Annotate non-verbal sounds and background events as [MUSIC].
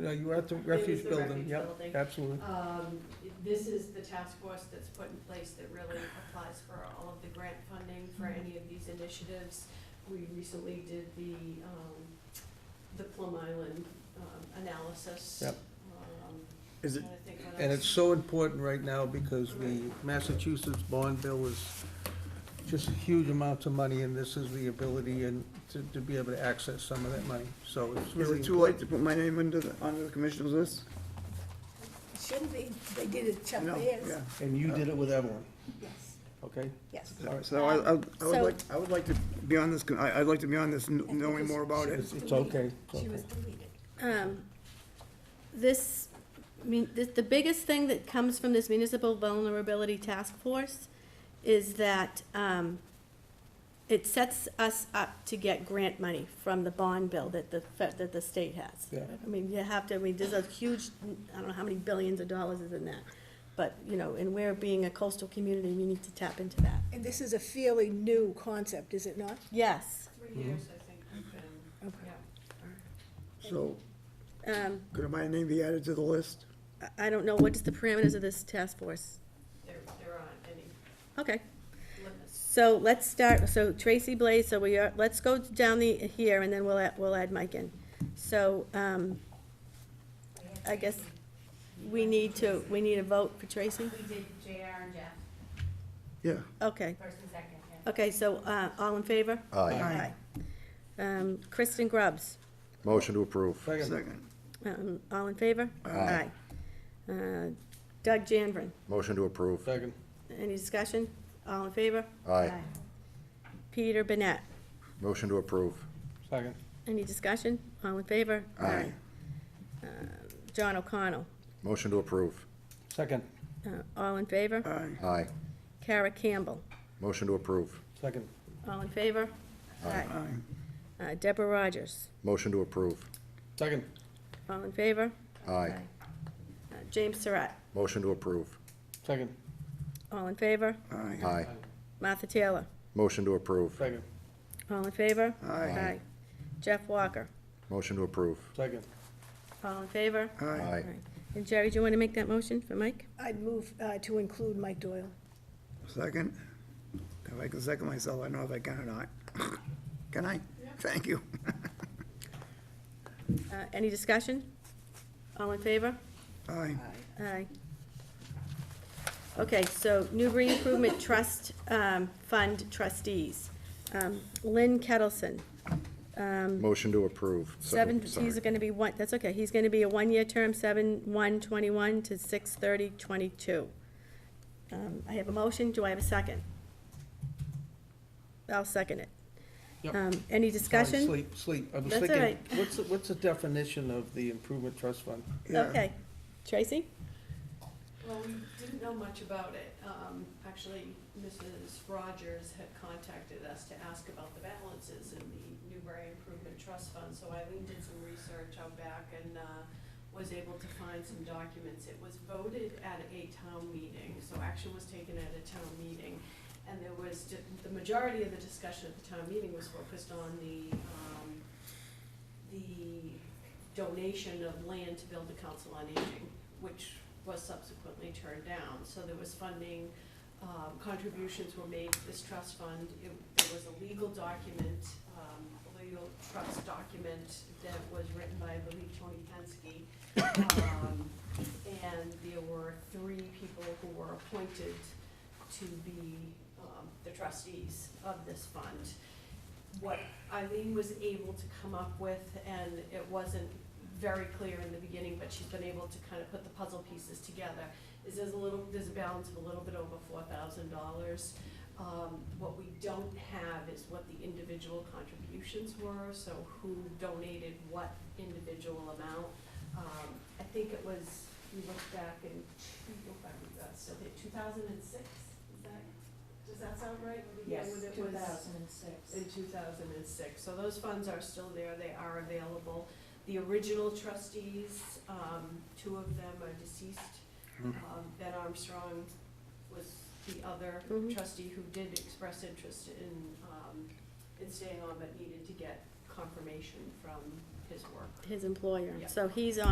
yeah, you were at the was refuge the building, refuge yep, building. absolutely. Um, this is the task force that's put in place that really applies for all of the grant funding for any of these initiatives. We recently did the, um, the Plum Island, um, analysis. Yep. Um, Is it, trying to think what And else. it's so important right now because the Massachusetts bond bill is just huge amounts of money, and this is the ability and to, to be able to access some of that money, so it's is really. it too late to put my name into the, onto the commissioner's list? Shouldn't be, they did it Chuck No, Ayers. yeah. And you did it with Evelyn, Yes, okay? yes. All right. So I, I I would So- like, I would like to be on this, con- I, I'd like to be on this, kn- And knowing because more about she it. was It's- it's deleted. okay, it's She okay. was deleted. Um, This, I mean, the, the biggest thing that comes from this municipal vulnerability task force is that, um, it sets us up to get grant money from the bond bill that the, fe- that the state has. Yeah. I mean, you have to, I mean, there's a huge, I don't know how many billions of dollars is in that, but, you know, and we're being a coastal community, we need to tap into that. And this is a fairly new concept, is it not? Yes. Three years, I think, we've been, Okay. yeah. So Um, could my name be added to the list? I- I don't know, what is the parameters of this task force? There, there aren't any Okay. limits. So let's start, so Tracy Blaze, so we are, let's go down the, here, and then we'll, add- we'll add Mike in. So, um, I guess we need to, we need a vote for Tracy? We did JR and Jeff, Yeah. Okay, first and second, yeah. okay, so, uh, all in favor? Aye. Um, Kristen Grubbs, Motion to approve. Second, Second. um, all in favor? Aye. Aye. Uh, Doug Janvren, Motion to approve. second, any discussion? All in favor? Aye. Peter Burnett, Motion to approve. second, any discussion? All in favor? Aye. Aye. Uh, John O'Connell, Motion to approve. second, uh, all in favor? Aye. Aye. Kara Campbell, Motion to approve. second, all in favor? Aye. Uh, Deborah Rogers, Motion to approve. second, all in favor? Aye. Uh, James Surratt, Motion to approve. second, all in favor? Aye. Aye. Martha Taylor, Motion to approve. second, all in favor? Aye. Jeff Walker, Motion to approve. second, all in favor? Aye. Aye. And Jerry, do you want to make that motion for Mike? I'd move uh, to include Mike Doyle. Second. If I can second myself, I don't know if I can or not. [LAUGHS] Can I? Thank you. Uh, Any discussion? All in favor? Aye. Aye. Okay, so Newbury Improvement Trust um, Fund trustees. Um, Lynn Kettleson, Um, Motion to approve. So- Seven, sorry. he's gonna be one, that's okay, he's gonna be a one-year term, seven, one, twenty-one to six, thirty, twenty-two. Um, I have a motion, do I have a second? I'll second it. Yep. Um, any Sorry, discussion? Sleep, sleep, I was That's all thinking, right. what's, the- what's the definition of the improvement trust fund? Yeah. Okay, Tracy? Well, we didn't know much about it. Um, actually, Mrs. Rogers had contacted us to ask about the balances in the Newbury Improvement Trust Fund, so Eileen did some research out back and, uh, was able to find some documents. It was voted at a town meeting, so action was taken at a town meeting. And there was, di- the majority of the discussion at the town meeting was focused on the, um, the donation of land to build the Council on Aging, which was subsequently turned down. So there was funding, um, contributions were made to this trust fund. It, there was a legal document, um, a legal trust document that was written by, I believe, Tony Pensky. Um, And there were three people who were appointed to be, um, the trustees of this fund. What Eileen was able to come up with, and it wasn't very clear in the beginning, but she's been able to kind of put the puzzle pieces together, is there's a little, there's a balance of a little bit over four thousand dollars. Um, what we don't have is what the individual contributions were, so who donated what individual amount. Um, I think it was, we looked back in, two- if I remember, so two thousand and six, is that, does that sound right? Yes, two thousand and six. In two thousand and six, so those funds are still there, they are available. The original trustees, um, two of them are deceased. Hmm. Um, Ben Armstrong was the other Mhm. trustee who did express interest in, um, in staying on, but needed to get confirmation from his work. His employer, Yeah. so he's on.